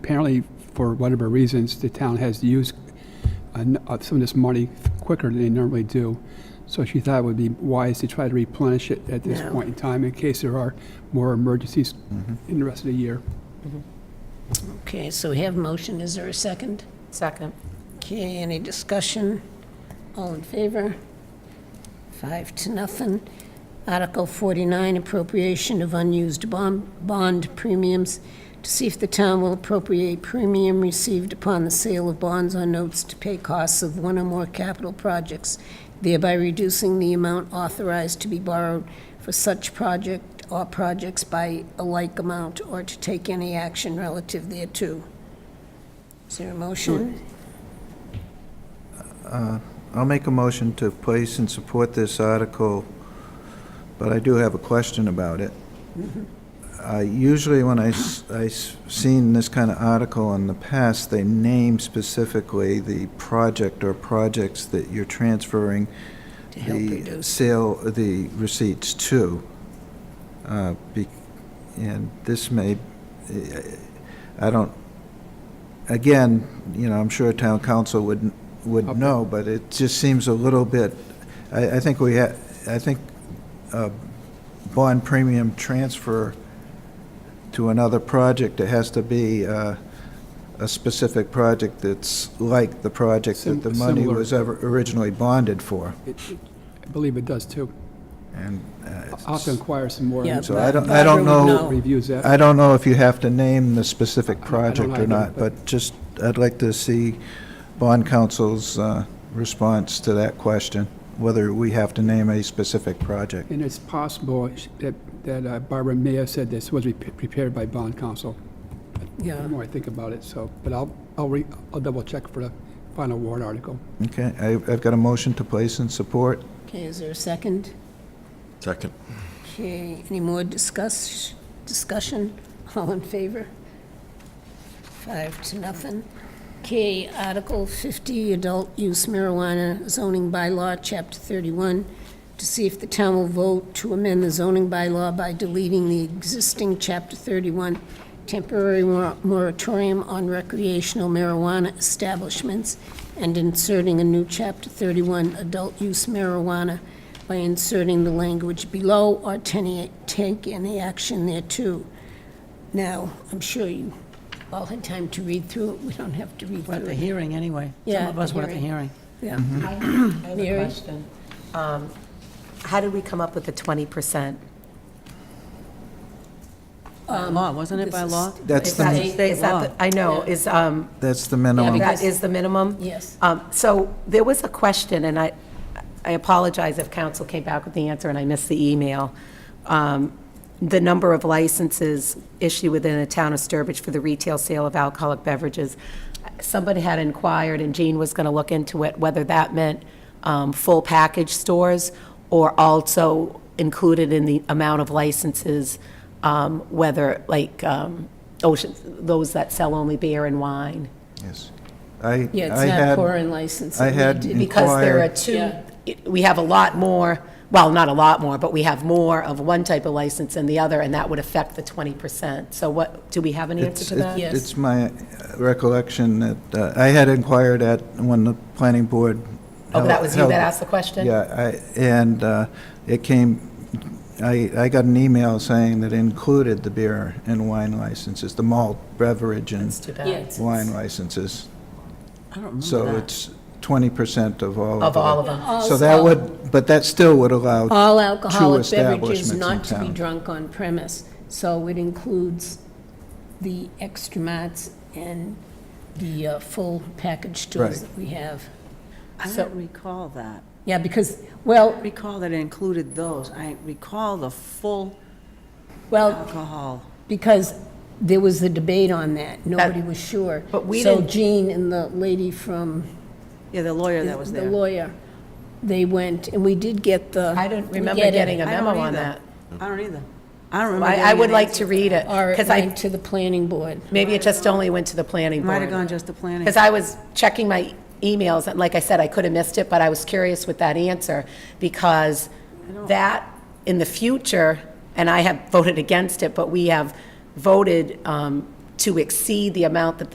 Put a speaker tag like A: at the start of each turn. A: Apparently, for whatever reasons, the town has used an- uh, some of this money quicker than they normally do. So she thought it would be wise to try to replenish it at this
B: No.
A: point in time in case there are more emergencies
C: Mm-hmm.
A: in the rest of the year.
B: Okay, so we have motion. Is there a second?
D: Second.
B: Okay, any discussion? All in favor? Five to nothing. Article 49, appropriation of unused bond bond premiums to see if the town will appropriate premium received upon the sale of bonds or notes to pay costs of one or more capital projects, thereby reducing the amount authorized to be borrowed for such project or projects by a like amount, or to take any action relative thereto. Is there a motion?
C: I'll make a motion to place and support this article, but I do have a question about it.
B: Mm-hmm.
C: I- Usually when I, s- I s- seen this kind of article in the past, they name specifically the project or projects that you're transferring
B: To help
C: the
B: reduce.
C: sale, the receipts to. Uh, be- And this may, I don't, again, you know, I'm sure town council would, would know, but it just seems a little bit, I, I think we, ha- I think uh, bond premium transfer to another project, it has to be uh, a specific project that's like the project that the
A: Sim-
C: money
A: similar.
C: was ever originally bonded for.
A: It- it- I believe it does too.
C: And uh,
A: I'll have to inquire some more.
B: Yeah,
C: So I don't-
B: Barbara
C: I don't
B: would
C: know-
A: Reviews that.
C: I don't know if you have to name the specific
A: I don't- I don't
C: project or
A: either,
C: not,
A: but-
C: but just, I'd like to see bond council's uh, response to that question, whether we have to name a specific project.
A: And it's possible sh- that that uh, Barbara may have said this was rep- prepared by bond counsel, the
B: Yeah,
A: more I think about it, so, but I'll, I'll re, I'll double check for the final warrant article.
C: Okay, I- I've got a motion to place and support.
B: okay, is there a second?
E: Second.
B: Okay, any more discuss, discussion? All in favor? Five to nothing. Okay, Article 50, Adult Use Marijuana Zoning Bylaw, Chapter 31, to see if the town will vote to amend the zoning bylaw by deleting the existing Chapter 31 temporary mor- moratorium on recreational marijuana establishments and inserting a new Chapter 31 Adult Use Marijuana by inserting the language below or ten- take any action thereto. Now, I'm sure you all had time to read through it. We don't have to read
D: We're at
B: through
D: the
B: it.
D: hearing anyway.
B: Yeah,
D: Some of us were at the hearing.
B: Yeah.
C: Mm-hmm.
F: I have I have a
B: Mary?
F: question. Um, How did we come up with the 20%?
D: By law, wasn't it
B: this
D: by
B: is-
D: law?
C: That's
F: Is that-
C: the,
D: It's state
F: is that the- I know, is, um,
C: that's the minimum.
B: because-
F: that is the minimum?
B: Yes.
F: Um, So there was a question, and I, I apologize if council came back with the answer and I missed the email. Um, The number of licenses issued within the town of Sturbridge for the retail sale of alcoholic beverages. Somebody had inquired, and Jean was going to look into it, whether that meant um, full package stores or also included in the amount of licenses, um, whether like um, Ocean, those that sell only beer and wine.
C: Yes. I,
B: Yeah, it's
C: I
B: not
C: had-
B: pouring license.
C: I had-
B: It-
F: Because there are
C: Inquire.
F: two,
B: Yeah.
F: it- we have a lot more, well, not a lot more, but we have more of one type of license than the other, and that would affect the 20%. So what, do we have an answer
C: It's-
F: to
C: it-
F: that?
B: Yes.
C: It's my uh, recollection that, uh, I had inquired at, when the planning board.
F: Oh, that was you
C: held-
F: that asked the question?
C: Yeah, I, and uh, it came, I, I got an email saying that included the beer and wine licenses, the malt beverage and
F: It's too bad.
B: Yeah, it's-
C: wine licenses.
D: I don't remember
C: So
D: that.
C: it's twenty percent of all of
F: Of
C: them.
F: all of them.
B: all-
C: So that would, but that still would allow,
B: All alcoholic beverages
C: establishments in
B: not to be
C: town.
B: drunk on premise. So it includes the extra mats and the uh, full package stores
C: Right.
B: that we have.
D: I
F: so-
D: don't recall that.
B: Yeah, because, well,
D: I recall that it included those. I recall the full Oh.
B: well,
D: alcohol.
B: because there was a debate on that. Nobody was sure.
F: But we
B: So
F: didn't-
B: Jean and the lady from,
D: Yeah, the lawyer that was
B: the
D: there.
B: lawyer, they went, and we did get the.
F: I don't
B: we
F: remember
B: get it.
F: getting a
D: I don't
F: memo on
D: either.
F: that.
D: I don't either. I don't remember.
F: I, I
D: getting
F: would
D: an
F: like
D: answer.
F: to read it,
B: Or it
F: because I,
B: went to the planning board.
F: maybe it just only went to the planning
D: Might have gone
F: board.
D: just to planning.
F: Because I was checking my emails, and like I said, I could have missed it, but I was curious with that answer, because that, in the future, and I have voted against it, but we have voted um, to exceed the amount that